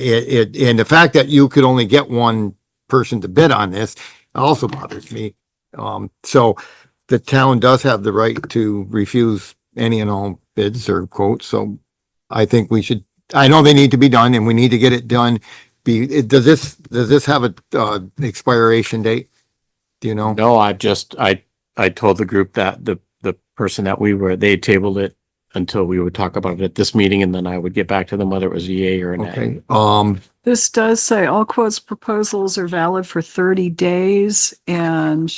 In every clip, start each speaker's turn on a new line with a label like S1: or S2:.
S1: It, it, and the fact that you could only get one person to bid on this also bothers me. Um, so the town does have the right to refuse any and all bids or quotes, so I think we should, I know they need to be done and we need to get it done. Be, it- does this, does this have a, uh, expiration date? Do you know?
S2: No, I've just, I, I told the group that the, the person that we were, they tabled it until we would talk about it at this meeting and then I would get back to them whether it was a yay or a nay.
S1: Okay, um,
S3: This does say all quotes proposals are valid for thirty days and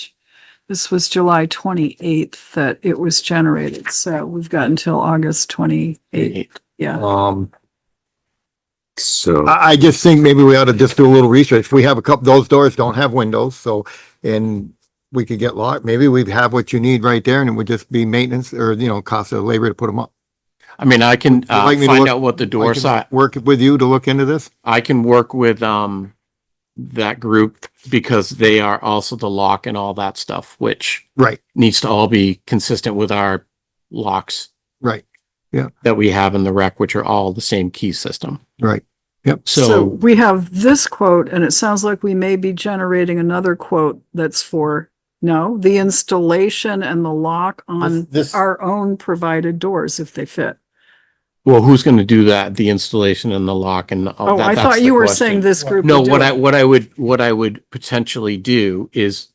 S3: this was July twenty-eighth that it was generated. So we've got until August twenty-eighth. Yeah.
S1: um,
S4: So
S1: I, I just think maybe we ought to just do a little research. We have a couple, those doors don't have windows, so, and we could get locked. Maybe we have what you need right there and it would just be maintenance or, you know, cost of labor to put them up.
S2: I mean, I can,
S1: Would you
S2: uh,
S1: like me to
S2: find
S1: look-
S2: out what the
S1: I
S2: door
S1: can
S2: size,
S1: Work with you to look into this?
S2: I can work with, um, that group because they are also the lock and all that stuff, which
S1: Right,
S2: needs to all be consistent with our locks
S1: right,
S2: that we have in the rec, which are all the same key system.
S1: right.
S3: So
S2: So
S3: we have this quote and it sounds like we may be generating another quote that's for, no, the installation and the lock on
S1: This- this-
S3: our own provided doors if they fit.
S2: Well, who's going to do that? The installation and the lock and all
S3: Oh,
S2: that?
S3: I
S2: That's
S3: thought
S2: the
S3: you were
S2: question.
S3: saying this group.
S2: No,
S3: would do
S2: what
S3: it.
S2: I, what I would, what I would potentially do is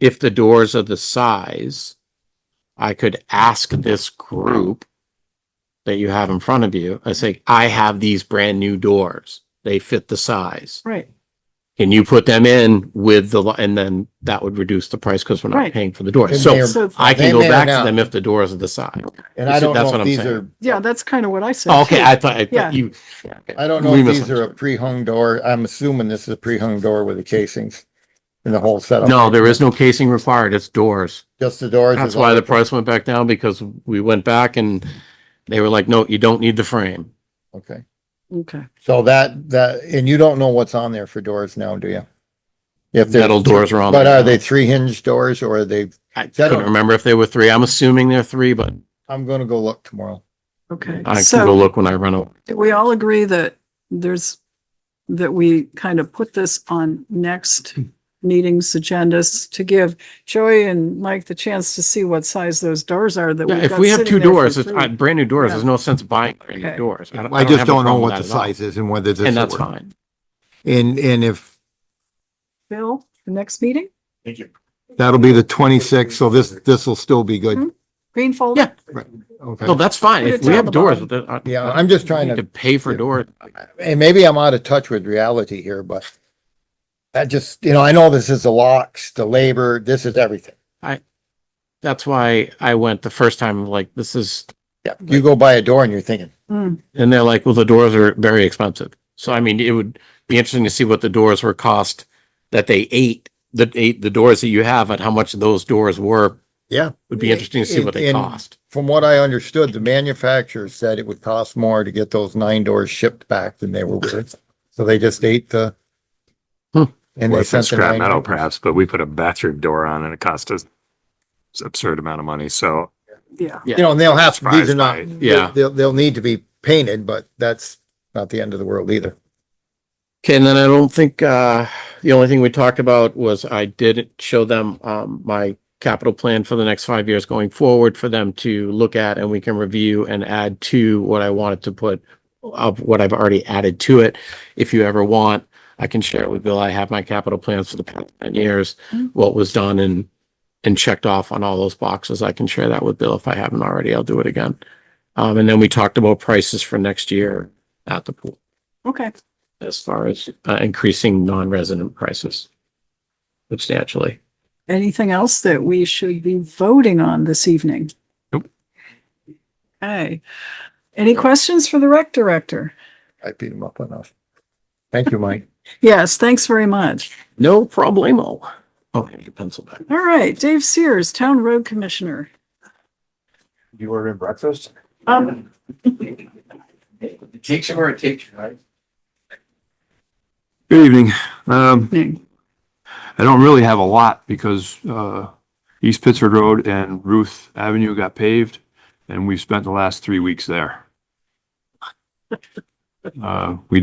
S2: if the doors are the size, I could ask this group that you have in front of you, I say, I have these brand new doors. They fit the size.
S3: Right,
S2: Can you put them in with the, lo- and then that would reduce the price because we're not
S3: Right.
S2: paying for the doors.
S1: And
S2: So
S1: they're-
S3: so,
S2: I
S1: they
S2: can go
S1: may or
S2: back to
S1: not.
S2: them if the doors are the size.
S1: And
S2: I don't That's know if what I'm these saying.
S3: yeah, that's kind of what I said.
S2: Oh, Okay,
S3: too.
S2: I thought, I
S3: Yeah.
S2: thought you.
S1: I don't know
S2: We
S1: if these are
S2: misunderstood.
S1: a pre-hung door. I'm assuming this is a pre-hung door with the casings and the whole setup.
S2: No, there is no casing required. It's doors.
S1: Just the doors. is
S2: That's
S1: all-
S2: why the price went back down because we went back and they were like, no, you don't need the frame.
S1: Okay,
S3: Okay.
S1: so that, that, and you don't know what's on there for doors now, do you? If they're-
S2: Metal doors are on.
S1: But
S2: there
S1: are
S2: now.
S1: they three hinge doors or are they,
S2: I couldn't remember if they were three. I'm assuming they're three, but
S1: I'm gonna go look tomorrow.
S3: Okay,
S2: I can go
S3: so
S2: look when I run over.
S3: do we all agree that there's, that we kind of put this on next meeting's agendas to give Joey and Mike the chance to see what size those doors are that
S2: Yeah,
S3: we've
S2: If
S3: got
S2: we have
S3: sitting
S2: two
S3: there for
S2: doors, it's
S3: free.
S2: uh, brand new doors.
S3: Yeah.
S2: There's no sense buying brand new
S3: Okay.
S2: doors.
S1: I just
S2: have a
S1: don't know
S2: problem
S1: what the
S2: with that at all.
S1: size is and whether this.
S2: And
S1: will
S2: that's
S1: work.
S2: fine.
S1: And, and if,
S3: Bill, the next meeting,
S2: Thank you.
S1: that'll be the twenty-sixth, so this, this will still be
S3: Hmm.
S1: good.
S3: green folder?
S2: Yeah.
S1: Okay.
S2: No, that's fine.
S3: Put
S2: If
S3: it
S2: we
S3: down
S2: have
S3: the
S2: doors.
S3: bottom.
S2: that are-
S1: Mm-hmm. Yeah, I'm just trying
S2: need
S1: to
S2: To pay for
S1: Yeah.
S2: doors.
S1: and maybe I'm out of touch with reality here, but that just, you know, I know this is the locks, the labor, this is everything.
S2: That's why I went the first time, like, this is,
S1: Yeah, you go by a door and you're thinking,
S3: Hmm,
S2: And they're like, well, the doors are very expensive. So I mean, it would be interesting to see what the doors were cost that they ate, the ate the doors that you have and how much those doors were.
S1: Yeah.
S2: Would be interesting to see what they
S1: And- and-
S2: cost.
S1: from what I understood, the manufacturer said it would cost more to get those nine doors shipped back than they were worth. So they just ate the.
S2: Hmm.
S1: And they
S4: less than
S1: sent the
S4: scrap
S1: nine.
S4: metal perhaps, but we put a bathroom door on and it cost us it's absurd amount of money. So
S3: Yeah,
S1: You know, and they'll have, these are
S4: surprised
S1: not,
S4: by it.
S2: Yeah.
S1: they'll, they'll need to be painted, but that's not the end of the world either.
S2: Okay, and then I don't think, uh, the only thing we talked about was I did show them, um, my capital plan for the next five years going forward for them to look at and we can review and add to what I wanted to put of what I've already added to it. If you ever want, I can share it with Bill. I have my capital plans for the past ten years, what was done and and checked off on all those boxes. I can share that with Bill if I haven't already. I'll do it again. Um, and then we talked about prices for next year at the pool
S3: okay,
S2: as far as uh, increasing non-resident prices substantially.
S3: anything else that we should be voting on this evening?
S4: Nope.
S3: Okay, any questions for the rec director?
S1: I beat them up enough. Thank you, Mike.
S3: Yes, thanks very much.
S2: No problemo. Oh, I have your pencil back.
S3: All right, Dave Sears, Town Road Commissioner.
S5: You ordered breakfast?
S3: Um,
S5: Take some or a take, right?
S4: good evening. Um,
S3: evening.
S4: I don't really have a lot because, uh, East Pittsford Road and Ruth Avenue got paved and we spent the last three weeks there. Uh, we